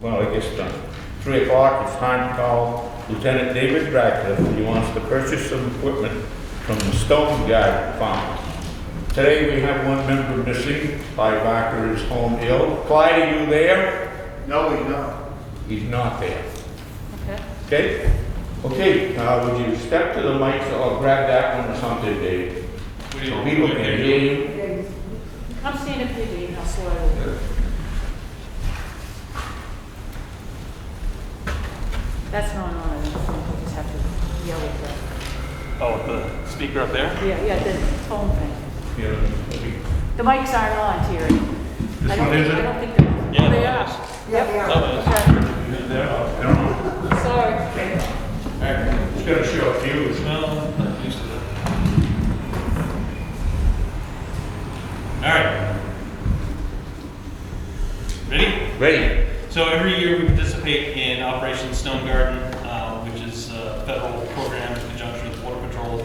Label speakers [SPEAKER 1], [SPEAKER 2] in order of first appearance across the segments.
[SPEAKER 1] Well, it gets done. Three o'clock, it's time to call Lieutenant David Radcliffe. He wants to purchase some equipment from the Stone Guy Farm. Today, we have one member missing. Clyde Barker is home ill. Clyde, are you there?
[SPEAKER 2] No, we don't.
[SPEAKER 1] He's not there.
[SPEAKER 3] Okay.
[SPEAKER 1] Okay? Okay, uh, would you step to the mic or grab that one or something, Dave? So people can hear you.
[SPEAKER 3] Come stand up here, Dave, and I'll swear over. you. That's not on, I think we just have to yell at them.
[SPEAKER 4] Oh, the speaker up there?
[SPEAKER 3] Yeah, yeah, the tone thing.
[SPEAKER 1] Yeah.
[SPEAKER 3] The mics aren't on, Terry. I
[SPEAKER 1] This
[SPEAKER 3] don't
[SPEAKER 1] one
[SPEAKER 3] think- I
[SPEAKER 1] isn't?
[SPEAKER 3] don't think they're.
[SPEAKER 4] Oh, Yeah,
[SPEAKER 3] They
[SPEAKER 4] no,
[SPEAKER 3] are.
[SPEAKER 4] it's-
[SPEAKER 3] Yep,
[SPEAKER 4] Oh,
[SPEAKER 1] I
[SPEAKER 3] okay,
[SPEAKER 1] don't know.
[SPEAKER 3] sorry.
[SPEAKER 1] It's gonna show a few.
[SPEAKER 4] it's- well, I'm not used to that. All right. Ready?
[SPEAKER 1] Ready?
[SPEAKER 4] So every year we participate in Operation Stone Garden, uh, which is a federal program in conjunction with Border Patrol.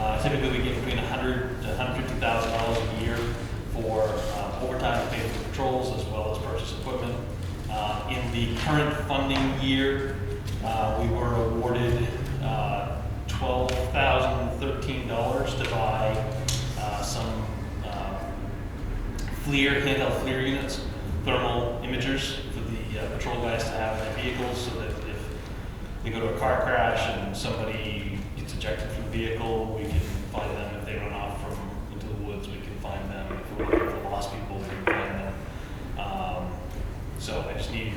[SPEAKER 4] Uh, Typically, we get between $100,000 to $150,000 a year for uh, overtime paid for patrols as well as purchase equipment. Uh, In the current funding year, uh, we were awarded uh, $12,013 to buy uh, some uh, FLIR, handheld FLIR units, thermal imagers for the uh, patrol guys to have in their vehicles so that if they go to a car crash and somebody gets ejected from the vehicle, we can find them. If they run off from into the woods, we can find them. If we're looking for lost people, we can find them. Um, so I just need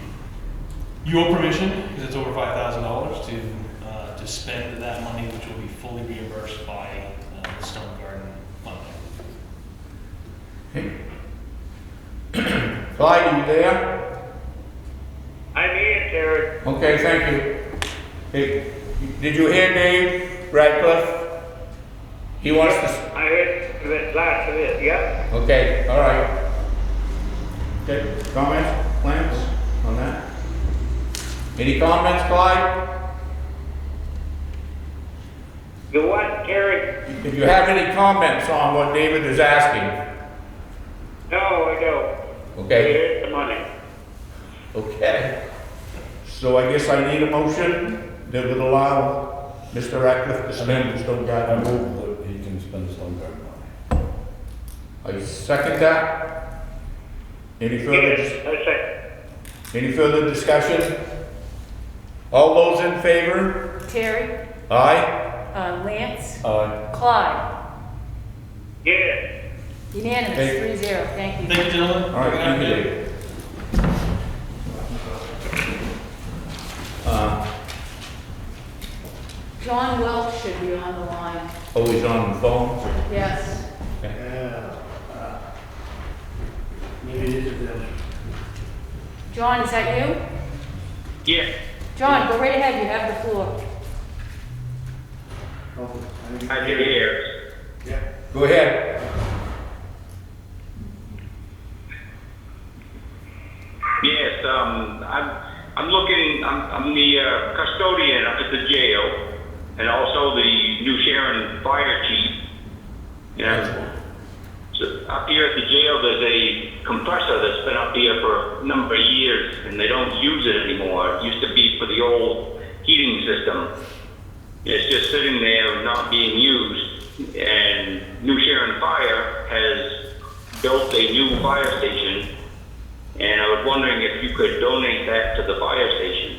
[SPEAKER 4] your permission, because it's over five thousand dollars, to, uh, to spend that money, which will be fully reimbursed by uh, the Stone Garden Fund.
[SPEAKER 1] Clyde, are you there?
[SPEAKER 5] I'm here, Terry.
[SPEAKER 1] Okay, thank you. Hey, did you hear Dave Radcliffe? He wants to,
[SPEAKER 5] I heard the last of it, yep.
[SPEAKER 1] okay, all right. Okay, comments, plans on that? Any comments, Clyde?
[SPEAKER 5] The what, Terry?
[SPEAKER 1] If you have any comments on what David is asking,
[SPEAKER 5] No, I don't.
[SPEAKER 1] okay?
[SPEAKER 5] Here's the money.
[SPEAKER 1] Okay. So I guess I need a motion that would allow Mr. Radcliffe to spend his own
[SPEAKER 6] I
[SPEAKER 1] guidance.
[SPEAKER 6] move that he can spend his own grant money.
[SPEAKER 1] I second that. Any further,
[SPEAKER 5] Yes,
[SPEAKER 1] dis-
[SPEAKER 5] that's it.
[SPEAKER 1] any further discussion? All those in favor?
[SPEAKER 3] Terry,
[SPEAKER 1] Aye?
[SPEAKER 3] uh, Lance,
[SPEAKER 6] Aye.
[SPEAKER 3] Clyde,
[SPEAKER 5] Yes.
[SPEAKER 3] unanimous,
[SPEAKER 1] Hey.
[SPEAKER 3] three zero, thank you.
[SPEAKER 4] Thank you, gentlemen.
[SPEAKER 1] All right, thank you, Dave. Uh,
[SPEAKER 3] John Welch should be on the line,
[SPEAKER 1] oh, he's on the phone?
[SPEAKER 3] yes.
[SPEAKER 2] Yeah. uh, Maybe this is them.
[SPEAKER 3] John, is that you?
[SPEAKER 5] Yes.
[SPEAKER 3] John, go right ahead, you have the floor.
[SPEAKER 2] Oh, I think-
[SPEAKER 5] I can hear.
[SPEAKER 2] Yeah.
[SPEAKER 1] Go ahead.
[SPEAKER 5] Yes, um, I'm, I'm looking, I'm, I'm the uh, custodian up at the jail and also the New Sharon Fire Chief. Yeah. So up here at the jail, there's a compressor that's been up here for a number of years, and they don't use it anymore. It used to be for the old heating system. It's just sitting there, not being used. And New Sharon Fire has built a new fire station, and I was wondering if you could donate that to the fire station.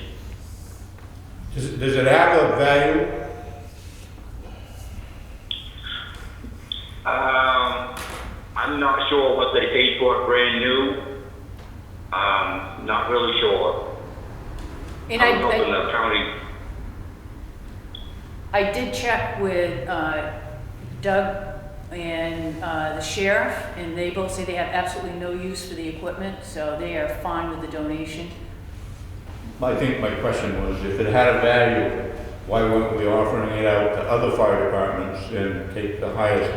[SPEAKER 1] Does, does it have a value?
[SPEAKER 5] Um, I'm not sure what they paid for it brand new. Um, not really sure.
[SPEAKER 3] And
[SPEAKER 5] I'm
[SPEAKER 3] I,
[SPEAKER 5] hoping
[SPEAKER 3] I,
[SPEAKER 5] the county
[SPEAKER 3] I did check with uh, Doug and uh, the sheriff, and they both say they have absolutely no use for the equipment, so they are fine with the donation.
[SPEAKER 1] I think my question was, if it had a value, why weren't we offering it out to other fire departments and take the highest